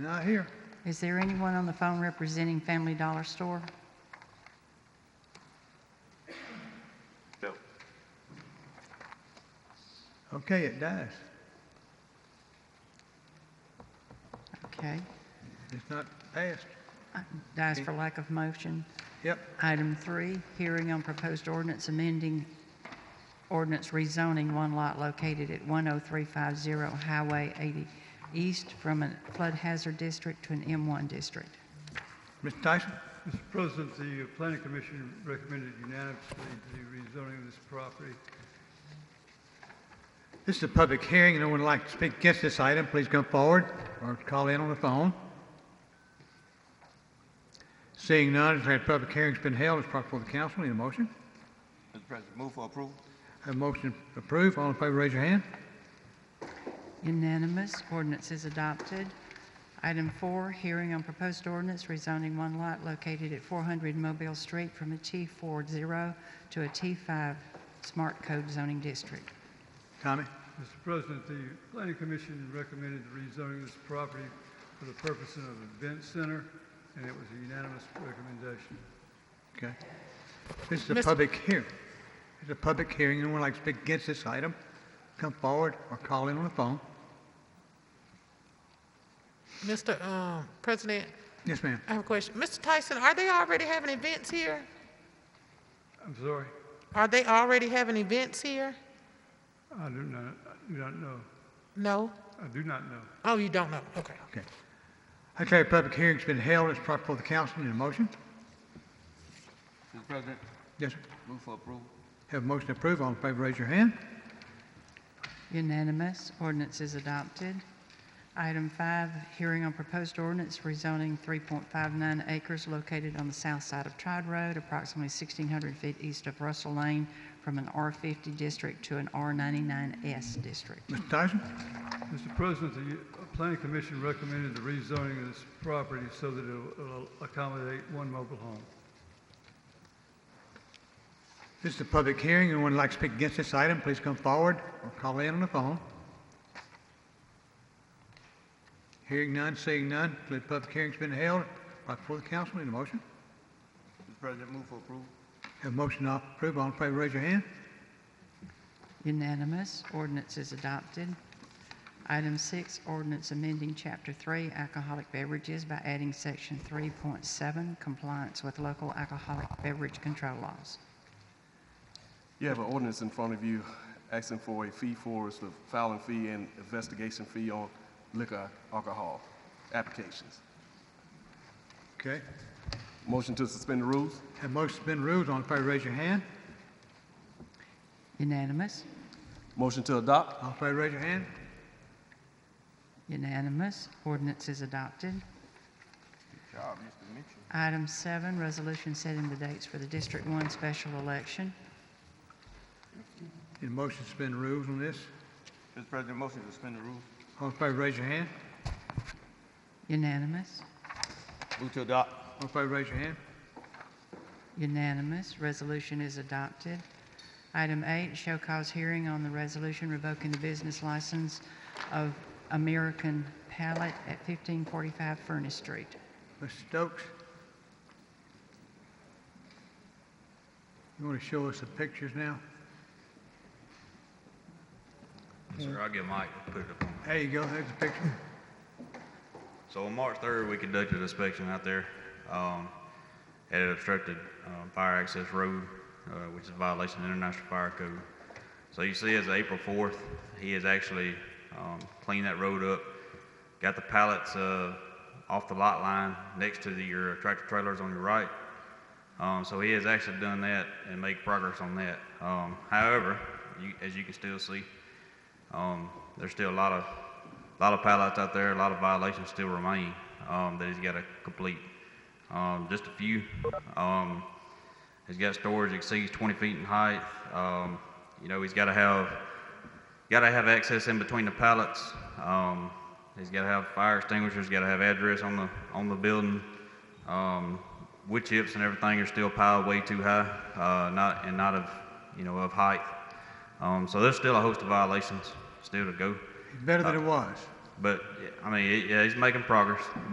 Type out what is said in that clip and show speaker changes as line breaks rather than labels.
Not here.
Is there anyone on the phone representing Family Dollar Store?
No.
Okay, it dies.
Okay.
It's not passed.
Dies for lack of motion.
Yep,
Item three, hearing on proposed ordinance amending ordinance rezoning one lot located at 10350 Highway 80 East from a flood hazard district to an M1 district.
Mr. Tyson?
Mr. President, the planning commission recommended unanimously the rezoning of this property.
This is a public hearing. No one would like to speak against this item, please come forward or call in on the phone. Seeing none, declare the public hearing's been held. It's proper for the council. Need a motion?
Mr. President, move for approval.
Have a motion approved. All in favor, raise your hand.
Unanimous, ordinance is adopted. Item four, hearing on proposed ordinance rezoning one lot located at 400 Mobile Street from a T40 to a T5 Smart Code zoning district.
Tommy?
Mr. President, the planning commission recommended the rezoning of this property for the purpose of an event center, and it was a unanimous recommendation.
Okay. This is a public hearing. It's a public hearing. Anyone would like to speak against this item, come forward or call in on the phone.
Mr. um, President,
Yes, ma'am.
I have a question. Mr. Tyson, are they already having events here?
I'm sorry,
Are they already having events here?
I do not, I do not know.
No?
I do not know.
Oh, you don't know? Okay.
Okay. I declare the public hearing's been held. It's proper for the council. Need a motion?
Mr. President,
Yes, sir.
move for approval.
Have a motion approved. All in favor, raise your hand.
Unanimous, ordinance is adopted. Item five, hearing on proposed ordinance rezoning 3.59 acres located on the south side of Tride Road, approximately 1,600 feet east of Russell Lane, from an R50 district to an R99S district.
Mr. Tyson?
Mr. President, the uh, planning commission recommended the rezoning of this property so that it will accommodate one mobile home.
This is a public hearing. Anyone would like to speak against this item, please come forward or call in on the phone. Hearing none, seeing none, declare the public hearing's been held. Proper for the council. Need a motion?
Mr. President, move for approval.
Have a motion to approve. All in favor, raise your hand.
Unanimous, ordinance is adopted. Item six, ordinance amending Chapter 3 alcoholic beverages by adding Section 3.7 compliance with local alcoholic beverage control laws.
You have an ordinance in front of you asking for a fee for us with filing fee and investigation fee on liquor alcohol applications.
Okay.
Motion to suspend the rules?
Have a motion to suspend rules. All in favor, raise your hand.
Unanimous,
Motion to adopt?
All in favor, raise your hand.
Unanimous. Ordinance is adopted.
Good job, Mr. Mitchell.
Item seven, resolution setting the dates for the District One special election.
Need a motion to suspend rules on this.
Mr. President, motion to suspend the rules.
All in favor, raise your hand.
Unanimous.
Move to adopt.
All in favor, raise your hand.
Unanimous. Resolution is adopted. Item eight, show cause hearing on the resolution revoking the business license of American Pallet at 1545 Furnace Street.
Mr. Stokes? You want to show us the pictures now?
Sir, I'll get Mike to put it up on.
There you go, there's the picture.
So on March 3rd, we conducted an inspection out there um, at an obstructed uh, fire access road, uh, which is a violation of International Fire Code. So you see, as of April 4th, he has actually um, cleaned that road up, got the pallets uh, off the lot line next to the- your tractor trailers on your right. Um, So he has actually done that and made progress on that. Um, However, you- as you can still see, um, there's still a lot of, lot of pallets out there, a lot of violations still remain, um, that he's gotta complete. Um, just a few, um, he's got storage exceeds twenty feet in height, um, you know, he's gotta have, gotta have access in between the pallets, um, he's gotta have fire extinguishers, gotta have address on the, on the building. Um, wood chips and everything are still piled way too high, uh, not, and not of, you know, of height. Um, so there's still a host of violations still to go.
It's better than it was.
But, yeah, I mean, yeah, he's making progress.